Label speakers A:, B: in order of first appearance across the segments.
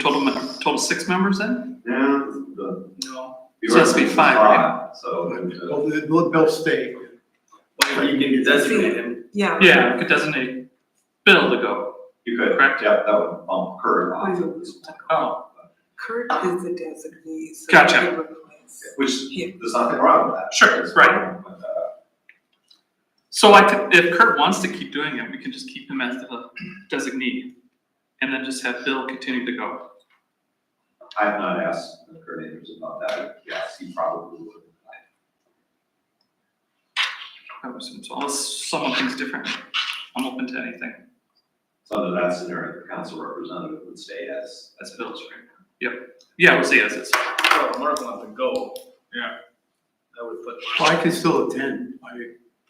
A: Total, me- total six members then?
B: Yeah, the.
C: No,
A: So it has to be five, right?
B: So. uh,
C: well, they'll, they'll stay. Well, you can designate him.
D: Yeah.
A: Yeah, we could designate Bill to go.
B: You could,
A: Correct.
B: yeah, that would bump Kurt off of this one,
A: Oh,
D: Kurt is the designee. so
A: Gotcha.
D: he replaced-
B: which,
D: Yeah.
B: there's nothing wrong with that.
A: Sure,
B: There's
A: right.
B: nothing wrong with that.
A: so I could, if Kurt wants to keep doing it, we can just keep him as the designee. And then just have Bill continue to go.
B: I have not asked Kurt Andrews about that, yes, he probably would.
A: I would assume, So unless someone thinks different, I'm open to anything.
B: So under that scenario, the council representative would stay as.
A: That's Bill's right Yep. Yeah, we'll see as it's.
C: So Mark wants to go. Yeah. I would put.
E: Well, I can still attend, I,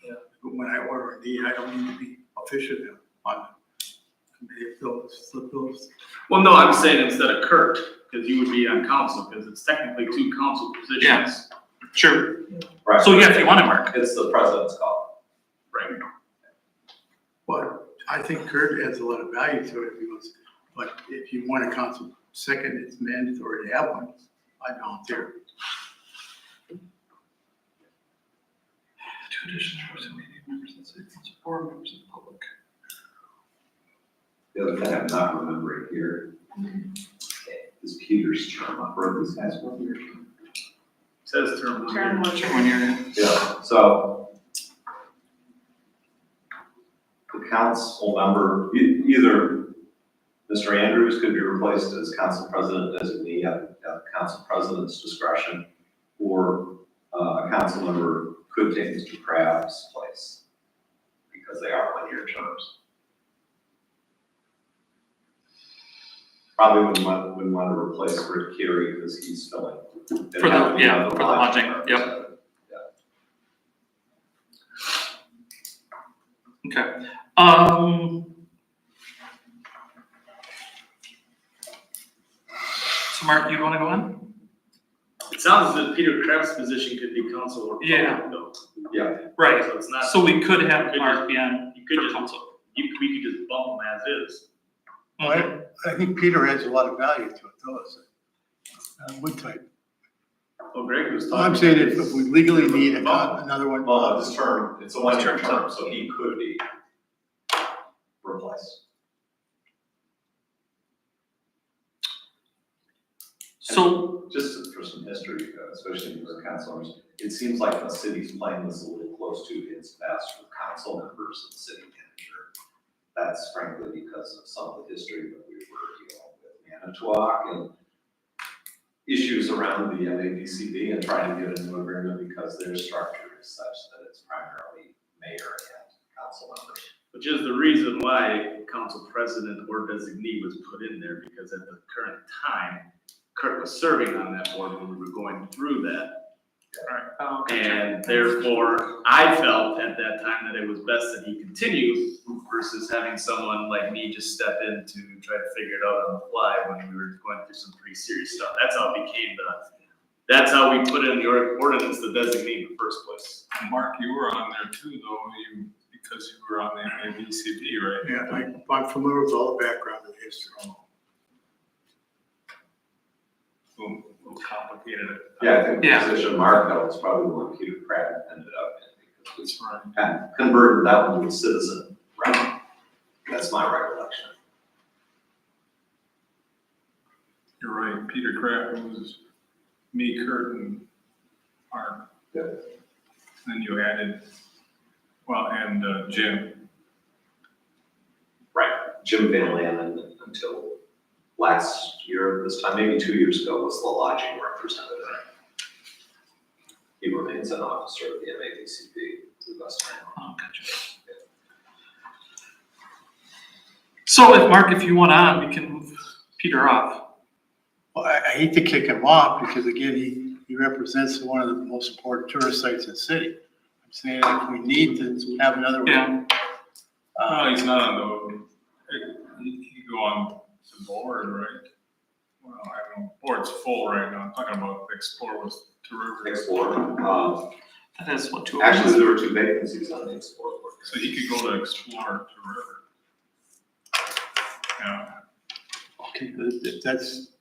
C: Yeah.
E: but when I order a D, I don't need to be official now, on, if those, if those,
C: Well, no, I'm saying instead of Kurt, because you would be on council, because it's technically two council positions.
A: Sure.
B: Right.
A: So yeah, if you want to, Mark.
B: It's the president's call.
C: Right.
E: but I think Kurt adds a lot of value to it, because, but if you want a council second, it's mandatory to have one, I volunteer.
A: Two additional members, that's six, that's four members of the public.
B: The other thing I'm not remembering here is Peter's term, I've heard these guys one year.
C: Says term one year.
D: Term one.
A: Sure, when you're-
B: Yeah, so. The council member, e- either Mr. Andrews could be replaced as council president designee at, at the council president's discretion, or uh, a council member could take Mr. Crab's place, because they are one-year terms. Probably wouldn't want, wouldn't want to replace Rick Carey, because he's filling.
A: For the- yeah, for the lodging, yep. Okay, um. So Mark, you wanna go on?
C: It sounds as if Peter Kraft's position could be council or
A: Yeah.
C: public though.
B: Yeah,
A: Right,
C: So it's not,
A: so we could
C: You
A: have
C: could
A: Mark be on
C: you could
A: for
C: just,
A: council.
C: you, we could just bump him as is.
E: I, I think Peter adds a lot of value to it, though, so. Uh, one type,
C: Well, Greg was talking.
E: I'm saying if, if we legally need a
B: Well,
E: con- another one.
B: Well, his term, it's a one-year
A: His term.
B: term, so he could be replaced.
A: So,
B: Just for some history, uh, especially for councilors, it seems like the city's playing this a little close to its vest for council members and city manager. That's frankly because of some of the history that we were dealing with Manitowoc and issues around the MABCD and trying to get a new agreement because their structure is such that it's primarily mayor and council members.
C: Which is the reason why council president or designee was put in there, because at the current time, Kurt was serving on that board when we were going through that.
A: uh,
C: And therefore, I felt at that time that it was best that he continue versus having someone like me just step in to try to figure it out on the fly when we were going through some pretty serious stuff. That's how it became the, that's how we put in the or- ordinance, the designee in the first place.
F: Mark, you were on there too, though, you, because you were on the MABCD, right?
E: Yeah, I, I'm familiar with all the background and history.
F: Boom, little complicated.
B: Yeah, I think
A: Yeah.
B: the position Mark held is probably the one Peter Pratt ended up in, because
F: That's right.
B: we kind of converted that one to a citizen, right? That's my recollection.
F: You're right, Peter Kraft was me, Kurt, and Mark.
B: Yeah.
F: Then you added, well, and uh, Jim,
B: Right. Jim Van Lannen, until last year, this time, maybe two years ago, was the lodging representative. He remains an officer of the MABCP, to the best of my knowledge.
A: oh, gotcha. So if, Mark, if you want on, we can move Peter off.
E: Well, I, I hate to kick him off because again, he, he represents one of the most important tourist sites in the city. I'm saying if we need to we have another
A: Yeah.
E: one.
F: oh,
E: Uh,
F: he's not on the, he, he go on the board, right? Well, I don't know, board's full right now, I'm talking about Explore was to Rivers.
B: Explorer, um,
A: That is what two. of us-
B: actually, there were two vacancies on the Explorer board.
F: So he could go to Explore to River. Yeah.
E: If that's